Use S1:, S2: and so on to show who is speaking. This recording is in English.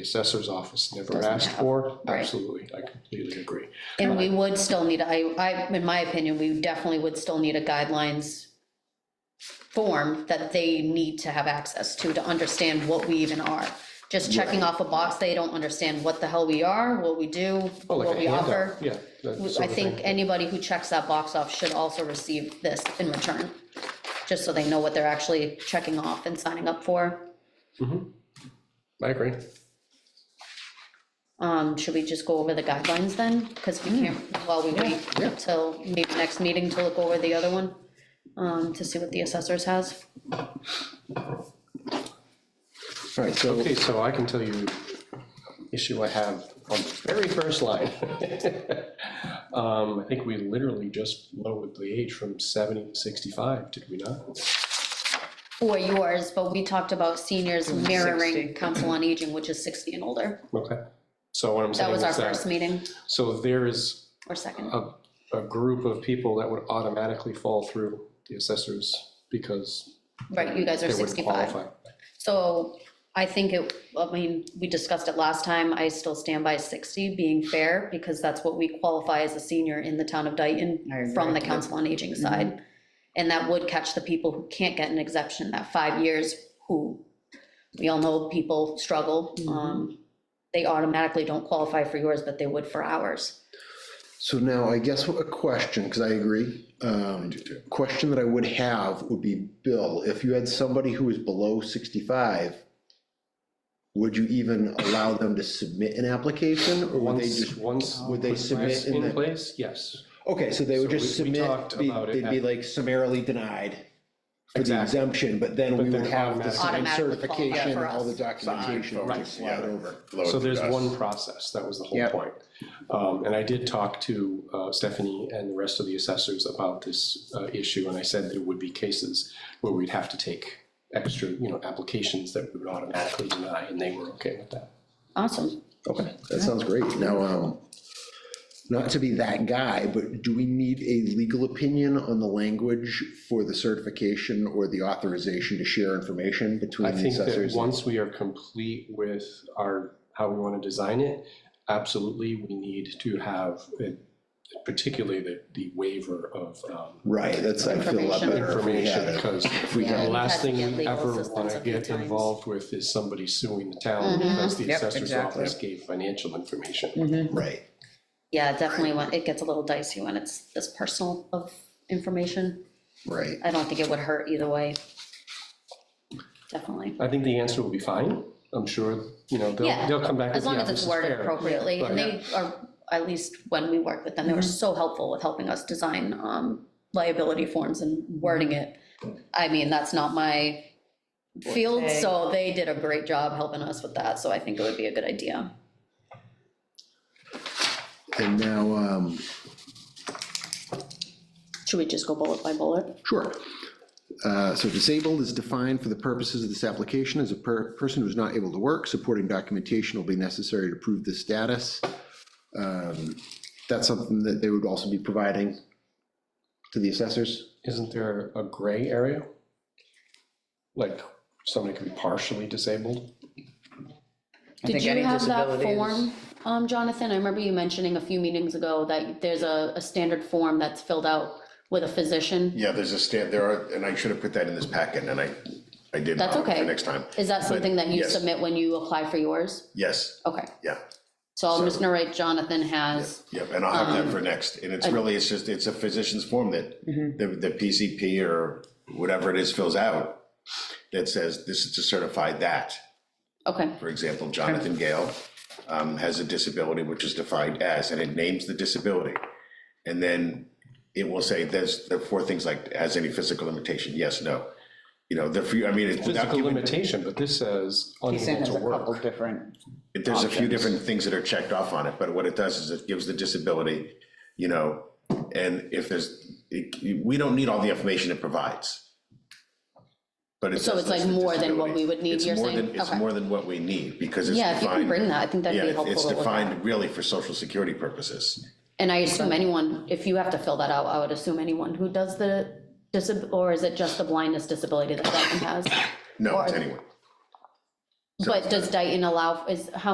S1: the assessor's office never
S2: Doesn't
S1: asked
S2: have-
S1: for.
S2: right.
S1: Absolutely, I completely agree.
S2: And we would still need, I, I, in my opinion, we definitely would still need a guidelines form that they need to have access to, to understand what we even are. Just checking off a box, they don't understand what the hell we are, what we do,
S1: Oh, like
S2: what
S1: a
S2: we
S1: handout,
S2: offer.
S1: Yeah. that sort
S2: I
S1: of
S2: think
S1: thing.
S2: anybody who checks that box off should also receive this in return, just so they know what they're actually checking off and signing up for.
S1: I agree.
S2: Um, should we just go over the guidelines then? Because we can't, while we wait
S1: yeah.
S2: till maybe next meeting to look over the other one, um, to see what the assessors has.
S3: All right, so,
S1: Okay, so I can tell you issue I have on the very first line. Um, I think we literally just lowered the age from 70 to 65, did we not?
S2: Or yours, but we talked about seniors
S1: Mm,
S2: mirroring
S3: 60.
S2: council on aging, which is sixty and older.
S1: Okay. So what I'm
S2: That
S1: saying is
S2: was our first
S1: that,
S2: meeting
S1: so there is
S2: or second.
S1: a, a group of people that would automatically fall through the assessors because
S2: Right, you guys
S1: they
S2: are
S1: wouldn't
S2: sixty-five.
S1: qualify.
S2: So I think it, I mean, we discussed it last time, I still stand by sixty being fair, because that's what we qualify as a senior in the town of
S3: I
S2: Dayton
S3: agree. Mm-hmm.
S2: from the Council on Aging side. And that would catch the people who can't get an exemption, that five years, who, we all know people struggle.
S3: Mm-hmm.
S2: um, They automatically don't qualify for yours, but they would for ours.
S3: so now I guess a question, because I agree. um, Question that I would have would be, Bill, if you had somebody who is below 65, would you even allow them to submit an application? Or would they
S1: Once,
S3: just,
S1: once.
S3: would they
S1: put
S3: submit
S1: this
S3: in the-
S1: place, yes.
S3: okay, so they would
S1: So
S3: just
S1: we- we
S3: submit,
S1: talked
S3: be-
S1: about it
S3: they'd be
S1: at-
S3: like summarily denied for the
S1: Exactly.
S3: exemption, but then
S1: But
S3: we
S1: then
S3: would have the signed
S2: automatically- Automatically qualify
S3: certification
S2: for
S3: and all the
S2: us.
S3: documentation
S4: Signed,
S3: would
S4: right,
S3: just slide
S4: yeah.
S3: over.
S4: Load
S1: So there's
S4: the dust.
S1: one process, that was the whole
S3: Yep.
S1: point. Um, and I did talk to uh, Stephanie and the rest of the assessors about this uh, issue, and I said there would be cases where we'd have to take extra, you know, applications that we would automatically deny, and they were okay with that.
S2: Awesome.
S3: Okay, that sounds great. Now, um, not to be that guy, but do we need a legal opinion on the language for the certification or the authorization to share information
S1: I
S3: between the
S1: think that
S3: assessors?
S1: once we are complete with our, how we want to design it, absolutely, we need to have, uh, particularly the, the waiver of um,
S3: Right, that's, I feel a lot
S2: Information.
S3: better if we had
S1: information,
S3: it.
S1: because
S3: we
S2: Yeah,
S1: The
S2: we've
S1: last
S2: had to
S1: thing
S2: get
S1: we
S2: legal
S1: ever
S2: assistance
S1: want
S2: a
S1: to
S2: few
S1: get
S2: times. Mm-hmm.
S1: involved with is somebody suing the town because the
S4: Yep,
S1: assessor's
S4: exactly.
S1: office gave financial information.
S4: Mm-hmm.
S3: Right,
S2: Yeah, definitely, when, it gets a little dicey when it's this personal of information.
S3: right.
S2: I don't think it would hurt either way. Definitely.
S1: I think the answer will be fine. I'm sure, you know, they'll,
S2: Yeah,
S1: they'll come back.
S2: As
S1: with,
S2: long
S1: "Yeah,
S2: as
S1: this
S2: it's
S1: is
S2: worded
S1: fair."
S2: appropriately, and
S1: Right.
S2: they are, at least when we worked with them, they were so helpful with helping us design um, liability forms and wording it. I mean, that's not my field, so they did a great job helping us with that, so I think it would be a good idea.
S3: And now, um,
S2: Should we just go bullet by bullet?
S3: Sure. Uh, So disabled is defined for the purposes of this application as a per- person who's not able to work. Supporting documentation will be necessary to prove this status. Um, That's something that they would also be providing to the assessors?
S1: Isn't there a gray area? Like somebody could be partially disabled?
S4: I
S2: Did
S4: think
S2: you
S4: any
S2: have that
S4: disability is-
S2: form, um, Jonathan? I remember you mentioning a few meetings ago that there's a, a standard form that's filled out with a physician.
S4: Yeah, there's a stand, there are, and I should have put that in this packet, and I, I did.
S2: That's
S4: uh, for
S2: okay.
S4: Next time.
S2: Is that something that you
S4: yes.
S2: submit when you apply for yours?
S4: Yes,
S2: Okay,
S4: yeah,
S2: so I'm just gonna write Jonathan has
S4: yeah, and I'll have
S2: Um,
S4: that for next. And it's really, it's just, it's a physician's form that
S2: Mm-hmm.
S4: the, the PCP or whatever it is fills out that says, this is to certify that.
S2: Okay,
S4: For example, Jonathan Gale um, has a disability which is defined as, and it names the disability. And then it will say, there's, there are four things like, has any physical limitation? Yes, no. You know, the few, I mean, it's.
S1: Physical
S4: document-
S1: limitation, but this says
S5: He's saying
S1: unable
S5: there's
S1: to
S5: a couple
S1: work.
S5: different,
S4: If There's a few
S5: options.
S4: different things that are checked off on it, but what it does is it gives the disability, you know, and if there's, it- we don't need all the information it provides. But it
S2: So
S4: does
S2: it's like
S4: list the
S2: more than what
S4: disability.
S2: we would need,
S4: It's
S2: you're
S4: more
S2: saying?
S4: than- It's
S2: Okay.
S4: more than what we need, because it's
S2: yeah,
S4: defined.
S2: if you can bring that, I think that'd
S4: Yeah,
S2: be
S4: it-
S2: helpful
S4: it's
S2: to look at.
S4: defined really for social security purposes.
S2: And I assume anyone, if you have to fill that out, I would assume anyone who does the disab, or is it just the blindness disability that Dayton has?
S4: No, it's
S2: Or-
S4: anyone.
S2: But does Dayton allow, is, how